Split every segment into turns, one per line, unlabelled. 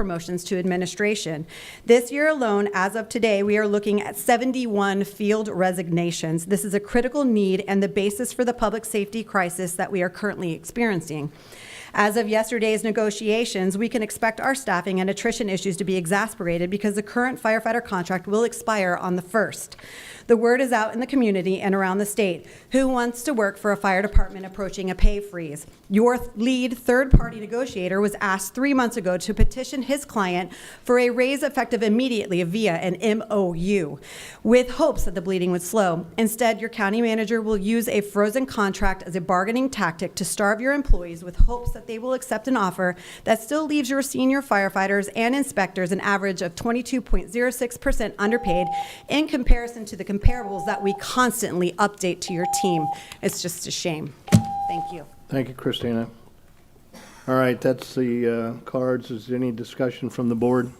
promotions to administration. This year alone, as of today, we are looking at 71 field resignations. This is a critical need and the basis for the public safety crisis that we are currently experiencing. As of yesterday's negotiations, we can expect our staffing and attrition issues to be exasperated because the current firefighter contract will expire on the 1st. The word is out in the community and around the state. Who wants to work for a fire department approaching a pay freeze? Your th- lead third-party negotiator was asked three months ago to petition his client for a raise effective immediately via an MOU with hopes that the bleeding would slow. Instead, your county manager will use a frozen contract as a bargaining tactic to starve your employees with hopes that they will accept an offer that still leaves your senior firefighters and inspectors an average of 22.06% underpaid in comparison to the comparables that we constantly update to your team. It's just a shame. Thank you.
Thank you, Christina. All right, that's the uh, cards. Is there any discussion from the board?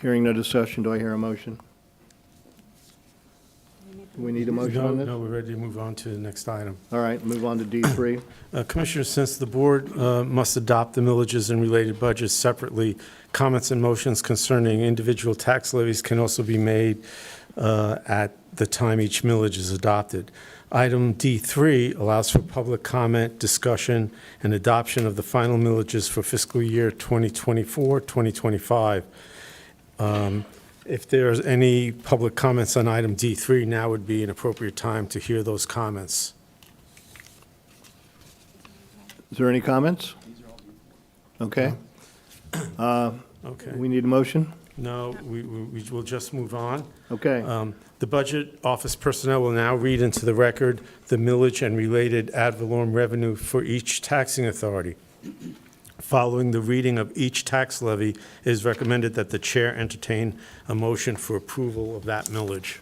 Hearing no discussion, do I hear a motion? Do we need a motion
No,
on this?
No, we're ready to move on to the next item.
All right, move on to D3.
Uh, Commissioners, since the board uh, must adopt the millages and related budgets separately, comments and motions concerning individual tax levies can also be made uh, at the time each millage is adopted. Item D3 allows for public comment, discussion, and adoption of the final millages for fiscal year 2024, 2025. Um, If there's any public comments on item D3, now would be an appropriate time to hear those comments.
Is there any comments? Okay,
Okay.
we need a motion?
No, we, we we will just move on.
Okay,
Um, The budget office personnel will now read into the record the millage and related ad valorem revenue for each taxing authority. Following the reading of each tax levy, it is recommended that the chair entertain a motion for approval of that millage.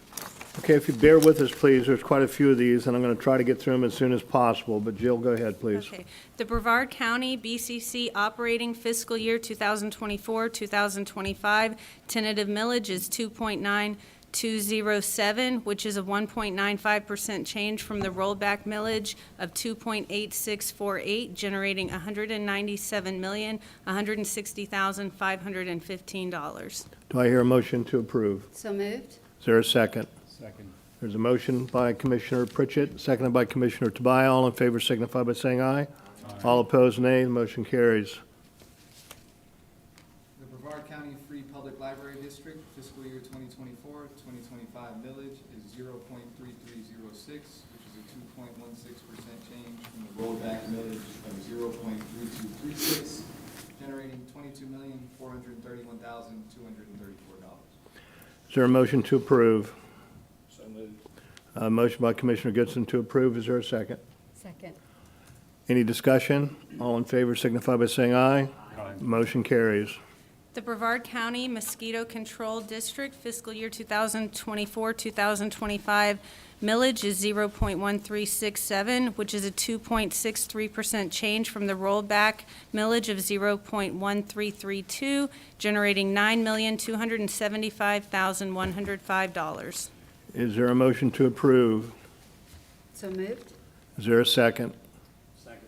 okay, if you bear with us, please, there's quite a few of these, and I'm going to try to get through them as soon as possible, but Jill, go ahead, please.
Okay. The Brevard County BCC operating fiscal year 2024, 2025 tentative millage is 2.9207, which is a 1.95% change from the rollback millage of 2.8648, generating $197,160,515.
Do I hear a motion to approve?
So moved?
Is there a second? Second. There's a motion by Commissioner Pritchett, seconded by Commissioner Tobias. All in favor signify by saying aye. All opposed, nay. The motion carries.
The Brevard County Free Public Library District fiscal year 2024, 2025 millage is 0.3306, which is a 2.16% change from the rollback millage of 0.3236, generating $22,431,234.
Is there a motion to approve? So moved. A motion by Commissioner Goodson to approve. Is there a second?
Second.
Any discussion? All in favor signify by saying aye. Aye. Motion carries.
The Brevard County Mosquito Control District fiscal year 2024, 2025 millage is 0.1367, which is a 2.63% change from the rollback millage of 0.1332, generating $9,275,105.
Is there a motion to approve?
So moved?
Is there a second? Second.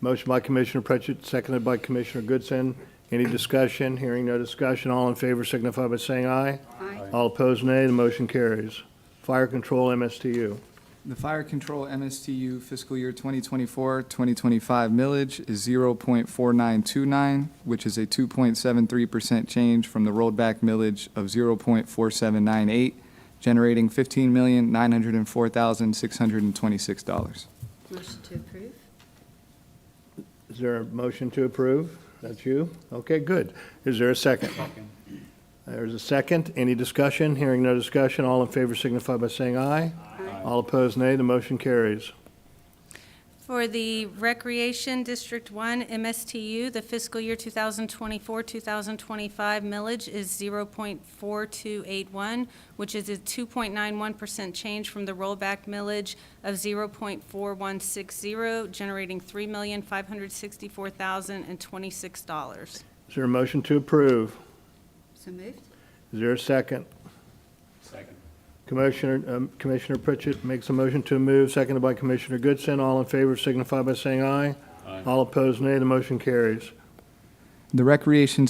Motion by Commissioner Pritchett, seconded by Commissioner Goodson. Any discussion? Hearing no discussion. All in favor signify by saying aye.
Aye.
All opposed, nay. The motion carries. Fire Control MSTU.
The fire control MSTU fiscal year 2024, 2025 millage is 0.4929, which is a 2.73% change from the rollback millage of 0.4798, generating $15,904,626.
Motion to approve?
Is there a motion to approve? That's you? Okay, good. Is there a second? There's a second. Any discussion? Hearing no discussion. All in favor signify by saying aye.
Aye.
All opposed, nay. The motion carries.
For the Recreation District 1 MSTU, the fiscal year 2024, 2025 millage is 0.4281, which is a 2.91% change from the rollback millage of 0.4160, generating $3,564,026.
Is there a motion to approve?
So moved?
Is there a second? Second. Commissioner, um, Commissioner Pritchett makes a motion to move, seconded by Commissioner Goodson. All in favor signify by saying aye. All opposed, nay. The motion carries.
The Recreation